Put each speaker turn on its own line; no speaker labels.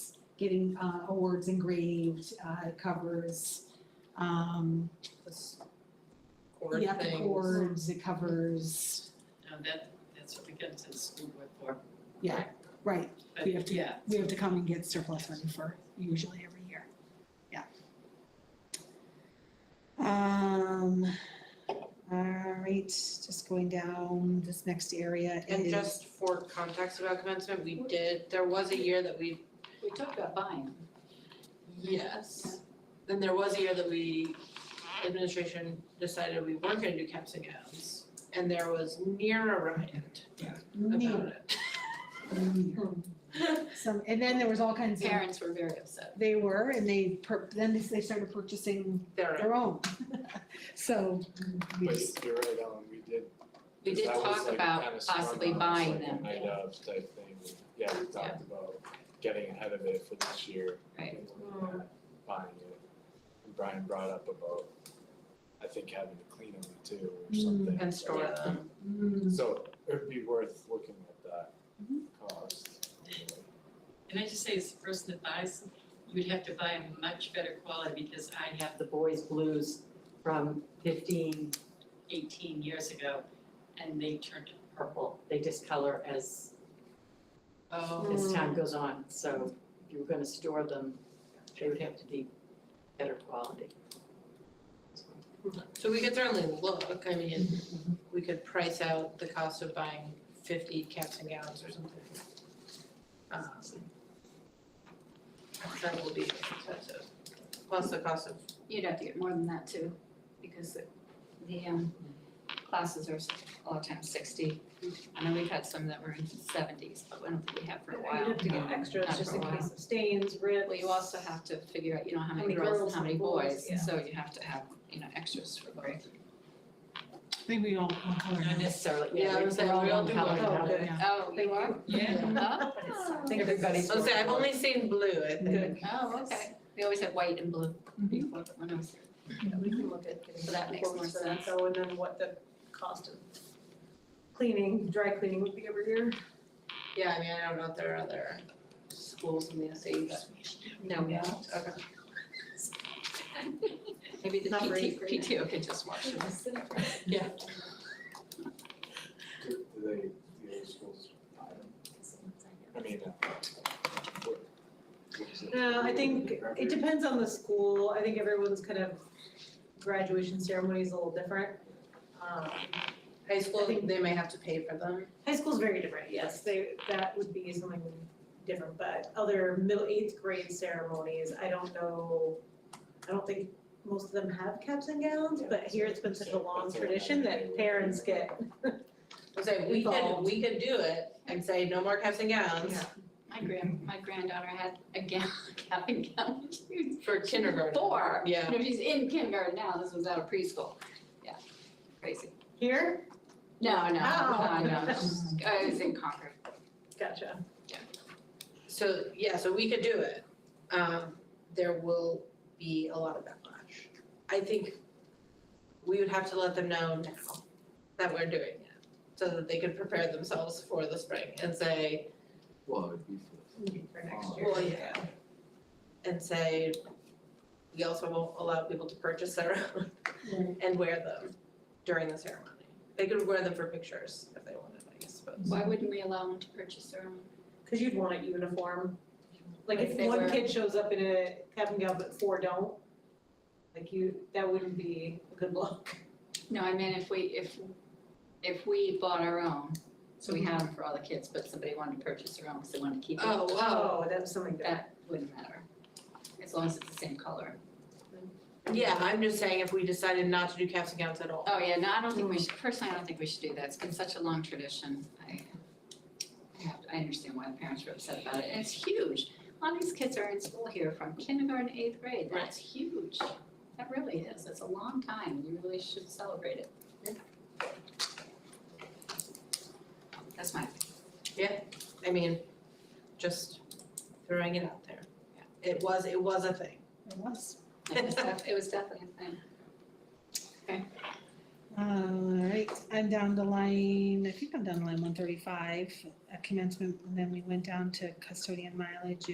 getting uh, awards engraved, uh, it covers, um,
this cord
yeah, the
thing.
cords, it covers,
Now that, that's what we get to the school board for,
yeah, right.
but
We have to-
yeah,
We have to come and get surplus money for usually every year, yeah. Um, all right, just going down, this next area is.
And just for context about commencement, we did, there was a year that we,
we talked about buying.
yes. Then there was a year that we, administration decided we weren't gonna do caps and gowns. And there was near a riot about
Near,
it.
near. Some, and then there was all kinds of.
Parents were very upset.
They were, and they, pur- then they- they started purchasing
There,
their own. So we
But
just,
you're right, Ellen, we did.
We
'cause
did
that was,
talk
like,
about
kinda sprung
possibly
on us,
buying
like, a
them.
Night of type thing, yeah, we talked about getting ahead of it for this year.
Right.
and looking at Buying it. And Brian brought up about, I think, having to clean them too or
Mm.
something.
and store them.
mm,
So it'd be worth looking at that
Mm-hmm.
cost.
Can I just say, as the person that buys, you'd have to buy a much better quality because I have the boys' blues from 15, 18 years ago. And they turned purple, they discolor as,
Oh,
Hmm.
as time goes on, so if you were gonna store them, they would have to be better quality.
so we could certainly look, I mean, we could price out the cost of buying fifty caps and gowns or something. Um, That will be expensive, plus the cost of
You'd have to get more than that too, because the- the um classes are s- a lot of times sixty. I know we've had some that were in seventies, but I don't think we have for a while.
You'd have to get extras
Not
just
for a
in
while.
case of stains, rips.
Well, you also have to figure out, you know, how many
many
girls and
girls
how many
and boys,
boys,
yeah.
so you have to have, you know, extras for both.
I think we all, all colored
Not
in.
necessarily,
Yeah,
yeah,
I
they-
was saying,
they're all
we all
one
do
color
both.
now.
Oh, good.
Oh,
They were?
Yeah.
Oh.
Everybody's.
I'll say, I've only seen blue, I think.
Oh, okay. We always had white and blue before, but when I was
Mm-hmm. Yeah, we can look at getting
So that makes
quotes
more
for
sense.
that, though, and then what the cost of cleaning, dry cleaning would be every year.
Yeah, I mean, I don't know if there are other schools in the SAU, but no, we don't, okay.
Maybe the
Not very
PT, PTO could just watch us.
Do do they, the other schools buy them? I mean, uh, what, what is it?
No, I think it
Record?
depends on the school, I think everyone's kind of graduation ceremony is a little different. Um,
High school, they may have to pay for them.
High school's very different, yes, they, that would be something different, but other middle, eighth grade ceremonies, I don't know. I don't think most of them have caps and gowns, but here it's been such a long tradition that parents get,
I'll say, we could,
Involved.
we could do it and say, no more caps and gowns
Yeah.
My grand, my granddaughter had a gown, cap and gown. She was
for kindergarten.
Four.
Yeah.
You know, she's in kindergarten now, this was out of preschool. Yeah, crazy.
here,
No, no,
Oh.
no, no, she's- I was in Concord.
gotcha.
So, yeah, so we could do it. Um, there will be a lot of backlash. I think we would have to let them know now that we're doing it, so that they could prepare themselves for the spring and say,
Well, it'd be for the
For next year.
well, yeah. And say, we also won't allow people to purchase their own and wear them during the ceremony. They could wear them for pictures if they wanted, I suppose.
Why wouldn't we allow them to purchase their own?
Cause you'd want a uniform. Like
Like
if
they
one
were-
kid shows up in a cap and gown, but four don't, like you, that wouldn't be a good look.
No, I mean, if we, if, if we bought our own, so we had them for all the kids, but somebody wanted to purchase their own because they wanted to keep it.
Oh, wow.
Oh, that's something different.
That wouldn't matter, as long as it's the same color.
Yeah, I'm just saying if we decided not to do caps and gowns at all.
Oh, yeah, no, I don't think we should, personally, I don't think we should do that, it's been such a long tradition, I, I have, I understand why the parents were upset about it, and it's huge. A lot of these kids are in school here from kindergarten, to eighth grade, that's huge, that really is, it's a long time, you really should celebrate it. That's my,
I mean, just throwing it out there. It was, it was a thing.
It was.
it was def- it was definitely a thing.
All right, I'm down to line, I think I'm down to line one thirty-five, commencement, and then we went down to custodian mileage